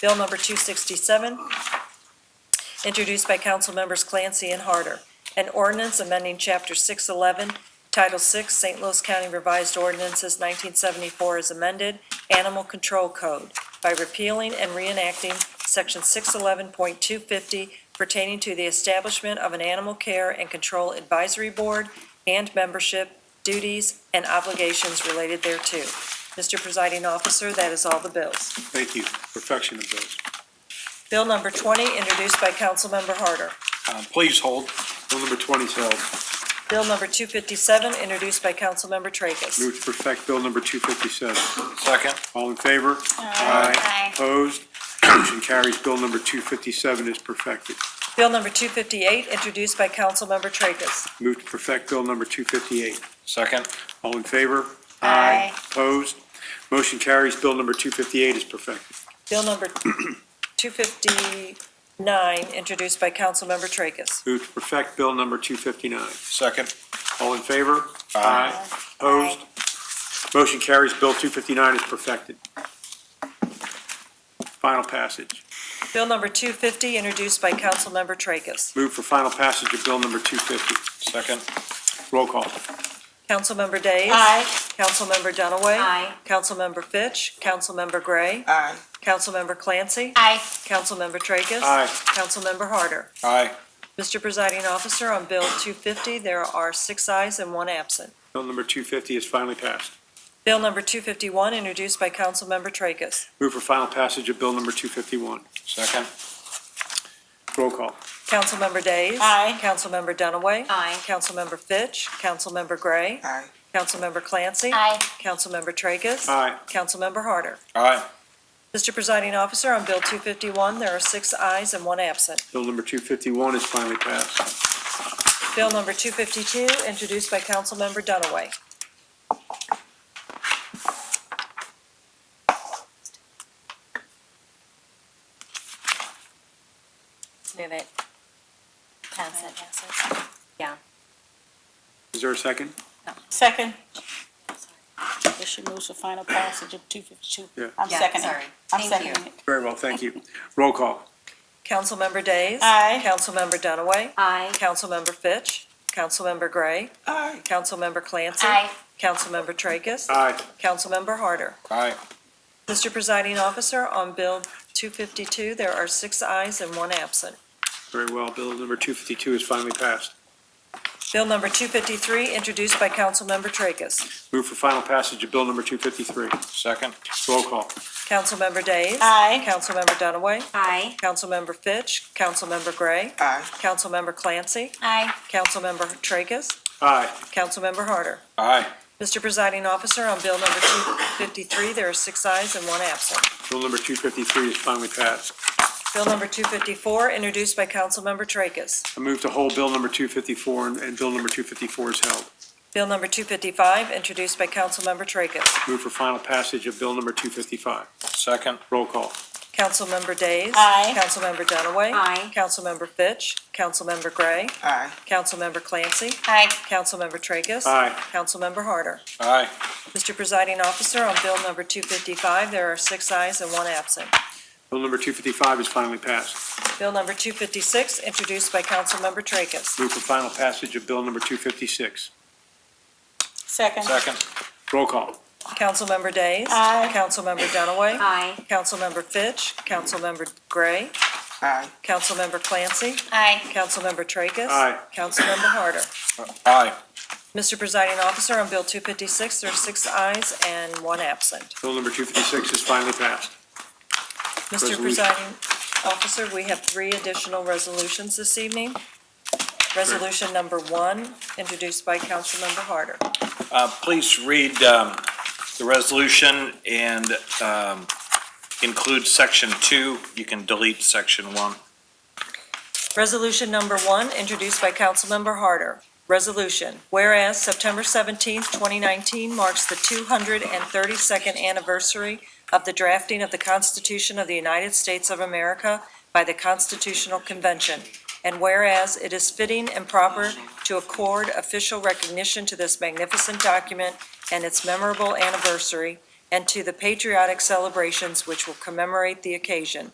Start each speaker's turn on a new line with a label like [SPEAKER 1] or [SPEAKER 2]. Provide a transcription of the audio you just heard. [SPEAKER 1] Bill number 267, introduced by council members Clancy and Harder. An ordinance amending Chapter 611, Title 6, St. Louis County Revised Ordinances 1974 as amended, Animal Control Code by repealing and reenacting Section 611.250 pertaining to the establishment of an Animal Care and Control Advisory Board and membership, duties, and obligations related thereto. Mr. Presiding Officer, that is all the bills.
[SPEAKER 2] Thank you. Perfection of bills.
[SPEAKER 1] Bill number 20, introduced by Councilmember Harder.
[SPEAKER 3] Uh,
[SPEAKER 2] Um, Please hold. Bill number 20 is held.
[SPEAKER 1] Bill number 257, introduced by Councilmember Tracus.
[SPEAKER 2] Move to perfect Bill number 257.
[SPEAKER 3] Second.
[SPEAKER 2] All in favor?
[SPEAKER 4] Aye.
[SPEAKER 2] Opposed? Motion carries. Bill number 257 is perfected.
[SPEAKER 1] Bill number 258, introduced by Councilmember Tracus.
[SPEAKER 2] Move to perfect Bill number 258.
[SPEAKER 3] Second.
[SPEAKER 2] All in favor?
[SPEAKER 4] Aye.
[SPEAKER 2] Opposed? Motion carries. Bill number 258 is perfected.
[SPEAKER 1] Bill number 259, introduced by Councilmember Tracus.
[SPEAKER 2] Move to perfect Bill number 259.
[SPEAKER 3] Second.
[SPEAKER 2] All in favor?
[SPEAKER 3] Aye.
[SPEAKER 2] Opposed? Motion carries. Bill 259 is perfected. Final passage.
[SPEAKER 1] Bill number 250, introduced by Councilmember Tracus.
[SPEAKER 2] Move for final passage of Bill number 250.
[SPEAKER 3] Second.
[SPEAKER 2] Roll call.
[SPEAKER 1] Councilmember Days.
[SPEAKER 4] Aye.
[SPEAKER 1] Councilmember Dunaway.
[SPEAKER 4] Aye.
[SPEAKER 1] Councilmember Fitch. Councilmember Gray.
[SPEAKER 3] Aye.
[SPEAKER 1] Councilmember Clancy.
[SPEAKER 4] Aye.
[SPEAKER 1] Councilmember Tracus.
[SPEAKER 2] Aye.
[SPEAKER 1] Councilmember Harder.
[SPEAKER 3] Aye.
[SPEAKER 1] Mr. Presiding Officer, on Bill 250, there are six ayes and one absent.
[SPEAKER 2] Bill number 250 is finally passed.
[SPEAKER 1] Bill number 251, introduced by Councilmember Tracus.
[SPEAKER 2] Move for final passage of Bill number 251.
[SPEAKER 3] Second.
[SPEAKER 2] Roll call.
[SPEAKER 1] Councilmember Days.
[SPEAKER 4] Aye.
[SPEAKER 1] Councilmember Dunaway.
[SPEAKER 4] Aye.
[SPEAKER 1] Councilmember Fitch. Councilmember Gray.
[SPEAKER 3] Aye.
[SPEAKER 1] Councilmember Clancy.
[SPEAKER 4] Aye.
[SPEAKER 1] Councilmember Tracus.
[SPEAKER 2] Aye.
[SPEAKER 1] Councilmember Harder.
[SPEAKER 3] Aye.
[SPEAKER 1] Mr. Presiding Officer, on Bill 251, there are six ayes and one absent.
[SPEAKER 2] Bill number 251 is finally passed.
[SPEAKER 1] Bill number 252, introduced by Councilmember Dunaway.
[SPEAKER 4] Move it. Pass it. Yeah.
[SPEAKER 2] Is there a second?
[SPEAKER 5] Second. This should move to final passage of two fifty-two.
[SPEAKER 2] Yeah.
[SPEAKER 5] I'm
[SPEAKER 4] Yeah,
[SPEAKER 5] seconding.
[SPEAKER 4] sorry.
[SPEAKER 5] I'm
[SPEAKER 4] Thank you.
[SPEAKER 5] seconding it.
[SPEAKER 2] Very well, thank you. Roll call.
[SPEAKER 1] Councilmember Days.
[SPEAKER 5] Aye.
[SPEAKER 1] Councilmember Dunaway.
[SPEAKER 4] Aye.
[SPEAKER 1] Councilmember Fitch. Councilmember Gray.
[SPEAKER 5] Aye.
[SPEAKER 1] Councilmember Clancy.
[SPEAKER 4] Aye.
[SPEAKER 1] Councilmember Tracus.
[SPEAKER 2] Aye.
[SPEAKER 1] Councilmember Harder.
[SPEAKER 3] Aye.
[SPEAKER 1] Mr. Presiding Officer, on Bill 252, there are six ayes and one absent.
[SPEAKER 2] Very well, Bill number 252 is finally passed.
[SPEAKER 1] Bill number 253, introduced by Councilmember Tracus.
[SPEAKER 2] Move for final passage of Bill number 253.
[SPEAKER 3] Second.
[SPEAKER 2] Roll call.
[SPEAKER 1] Councilmember Days.
[SPEAKER 5] Aye.
[SPEAKER 1] Councilmember Dunaway.
[SPEAKER 4] Aye.
[SPEAKER 1] Councilmember Fitch. Councilmember Gray.
[SPEAKER 3] Aye.
[SPEAKER 1] Councilmember Clancy.
[SPEAKER 4] Aye.
[SPEAKER 1] Councilmember Tracus.
[SPEAKER 2] Aye.
[SPEAKER 1] Councilmember Harder.
[SPEAKER 3] Aye.
[SPEAKER 1] Mr. Presiding Officer, on Bill number 253, there are six ayes and one absent.
[SPEAKER 2] Bill number 253 is finally passed.
[SPEAKER 1] Bill number 254, introduced by Councilmember Tracus.
[SPEAKER 2] I move to hold Bill number 254, and- and Bill number 254 is held.
[SPEAKER 1] Bill number 255, introduced by Councilmember Tracus.
[SPEAKER 2] Move for final passage of Bill number 255.
[SPEAKER 3] Second.
[SPEAKER 2] Roll call.
[SPEAKER 1] Councilmember Days.
[SPEAKER 5] Aye.
[SPEAKER 1] Councilmember Dunaway.
[SPEAKER 4] Aye.
[SPEAKER 1] Councilmember Fitch. Councilmember Gray.
[SPEAKER 3] Aye.
[SPEAKER 1] Councilmember Clancy.
[SPEAKER 4] Aye.
[SPEAKER 1] Councilmember Tracus.
[SPEAKER 2] Aye.
[SPEAKER 1] Councilmember Harder.
[SPEAKER 3] Aye.
[SPEAKER 1] Mr. Presiding Officer, on Bill number 255, there are six ayes and one absent.
[SPEAKER 2] Bill number 255 is finally passed.
[SPEAKER 1] Bill number 256, introduced by Councilmember Tracus.
[SPEAKER 2] Move for final passage of Bill number 256.
[SPEAKER 5] Second.
[SPEAKER 3] Second.
[SPEAKER 2] Roll call.
[SPEAKER 1] Councilmember Days.
[SPEAKER 5] Aye.
[SPEAKER 1] Councilmember Dunaway.
[SPEAKER 4] Aye.
[SPEAKER 1] Councilmember Fitch. Councilmember Gray.
[SPEAKER 3] Aye.
[SPEAKER 1] Councilmember Clancy.
[SPEAKER 4] Aye.
[SPEAKER 1] Councilmember Tracus.
[SPEAKER 2] Aye.
[SPEAKER 1] Councilmember Harder.
[SPEAKER 3] Aye.
[SPEAKER 1] Mr. Presiding Officer, on Bill 256, there are six ayes and one absent.
[SPEAKER 2] Bill number 256 is finally passed.
[SPEAKER 1] Mr.
[SPEAKER 2] Resolution.
[SPEAKER 1] Presiding Officer, we have three additional resolutions this evening. Resolution number one, introduced by Councilmember Harder.
[SPEAKER 3] Uh, Please read um, the resolution and um, include section two. You can delete section one.
[SPEAKER 1] Resolution number one, introduced by Councilmember Harder. Resolution, whereas September 17, 2019 marks the 232nd anniversary of the drafting of the Constitution of the United States of America by the Constitutional Convention, and whereas it is fitting and proper to accord official recognition to this magnificent document and its memorable anniversary, and to the patriotic celebrations which will commemorate the occasion.